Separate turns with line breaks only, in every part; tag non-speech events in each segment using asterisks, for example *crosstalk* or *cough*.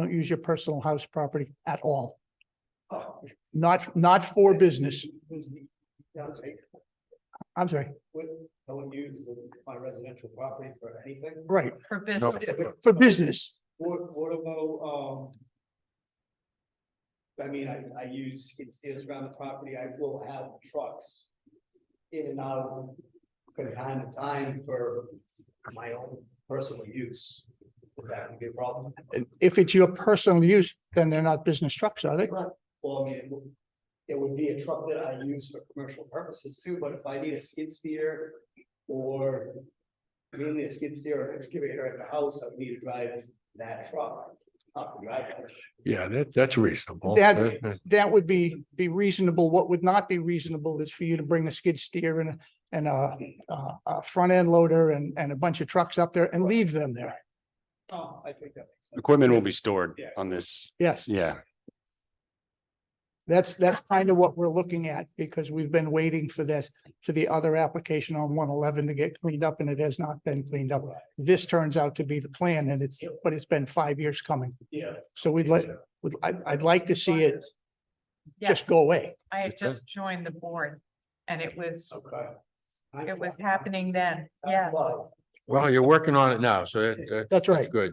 Don't use your personal house property at all. Not, not for business. I'm sorry,
I wouldn't use my residential property for anything.
right,
for
*laughs*
business.
for business.
What, what about, um, I mean, I, I use skid steers around the property. I will have trucks in and out from time to time for my own personal use. Is that gonna be a problem?
If it's your personal use, then they're not business trucks, are they?
Well, I mean, it would- it would be a truck that I use for commercial purposes too, but if I need a skid steer or mainly a skid steer or an excavator at the house, I would need to drive that truck up the driveway.
Yeah, that, that's reasonable. Uh,
That-
That- that-
That would be, be reasonable. What would not be reasonable is for you to bring a skid steer and, a- and a, a, a front end loader and, and a bunch of trucks up there and leave them there.
Oh, I think that makes sense.
Equipment will be stored
Yeah.
on this,
Yes,
yeah.
that's, that's kind of what we're looking at because we've been waiting for this, for the other application on one eleven to get cleaned up and it has not been cleaned up. This turns out to be the plan and it's, but it's been five years coming.
Yeah.
So we'd like, would, I, I'd like to see it
Yes,
just go away.
I had
Okay.
just joined the board and it was,
Okay.
it was happening then. Yes.
Well,
Well, you're working on it now, so that- that-
That's
that's
right.
good.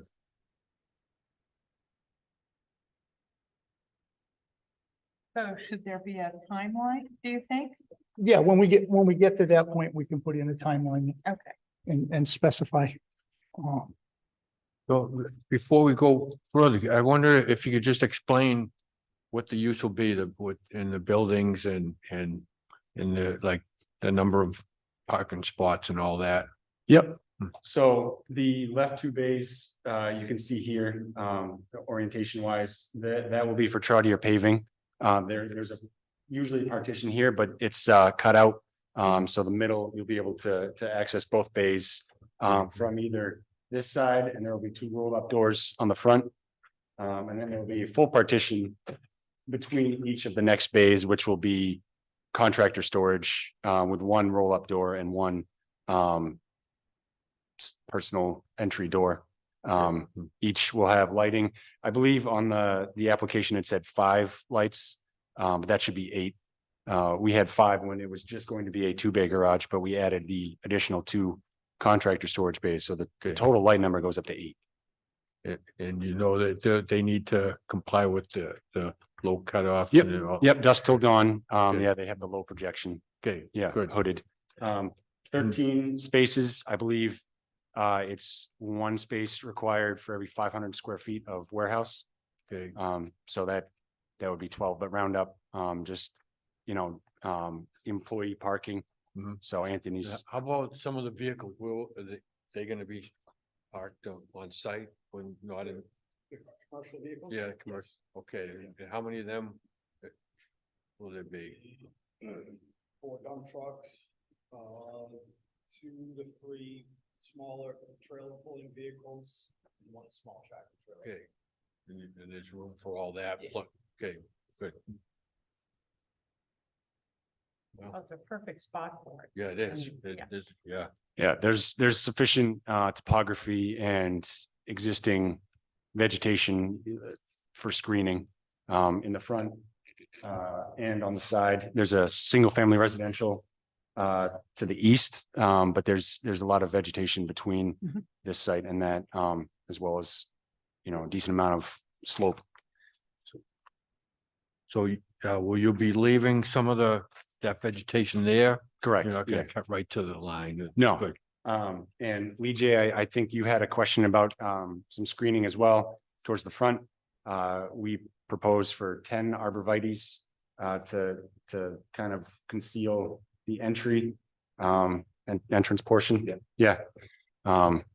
So should there be a timeline, do you think?
Yeah, when we get, when we get to that point, we can put in a timeline
Okay.
and, and specify. uh,
So before we go further, I wonder if you could just explain what the use will be, the, what, in the buildings and, and in the, like, the number of parking spots and all that.
Yep.
Hmm.
So the left two bays, uh, you can see here, um, orientation wise, that, that will be for trotier paving. Um, there, there's a usually a partition here, but it's, uh, cut out. Um, so the middle, you'll be able to, to access both bays, um, from either this side and there will be two rolled up doors on the front. Um, and then there'll be a full partition between each of the next bays, which will be contractor storage, uh, with one roll up door and one, um, s- personal entry door. Um, each will have lighting. I believe on the, the application, it said five lights. Um, but that should be eight. Uh, we had five when it was just going to be a two bay garage, but we added the additional two contractor storage bays. So the, the
Okay.
total light number goes up to eight.
And, and you know that they, they need to comply with the, the low cutoff.
Yep,
and all-
Yep, dusk till dawn. Um,
Good.
yeah, they have the low projection.
Okay,
Yeah,
good. Hmm.
hooded. Um, thirteen spaces, I believe. Uh, it's one space required for every five hundred square feet of warehouse.
Okay,
Um, so that, that would be twelve, but round up, um, just, you know, um, employee parking.
Mhm.
So Anthony's,
how about some of the vehicles, will, are they, they gonna be parked on, on site when not in,
Commercial vehicles?
yeah, commercial? Okay, and how many of them uh, will there be?
Four dump trucks, um, two to three smaller trailer pulling vehicles, and one small tractor trailer.
Okay, and, you- and there's room for all that,
Yeah.
Look, okay, good.
Oh,
Well,
it's a perfect spot for it.
yeah, it is,
Mm,
it
yeah.
is, yeah,
yeah, there's, there's sufficient, uh, topography and existing vegetation uh, for screening, um, in the front. Uh, and on the side, there's a single family residential, uh, to the east, um, but there's, there's a lot of vegetation between
Mhm.
this site and that, um, as well as, you know, a decent amount of slope
so, you- uh, will you be leaving some of the, that vegetation there?
Correct,
You're not
yeah.
gonna cut right to the line?
No.
Good.
Um, and Lee J, I, I think you had a question about, um, some screening as well towards the front. Uh, we propose for ten arborvitae's, uh, to, to kind of conceal the entry, um, and entrance portion. Yeah. Yeah. Um,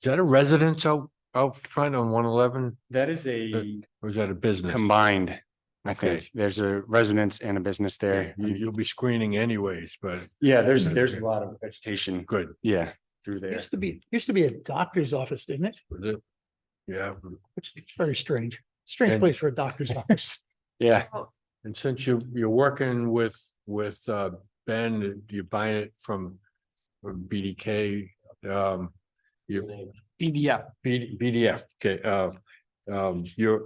Is that a residence out, out front on one eleven,
that is a
or is that a business?
combined, I
Okay.
think. There's a residence and a business
Yeah,
there.
You, you'll be screening anyways, but
Yeah, there's, there's a lot of vegetation.
good,
Yeah, through there.
Used to be, used to be a doctor's office, didn't it?
was it? Yeah,
Which is very strange. Strange
And-
place for a doctor's *laughs* office.
Yeah,
and since you, you're working with, with, uh, Ben, you're buying it from from BDK, um, you, BDF, BDF, okay, uh, um, you're,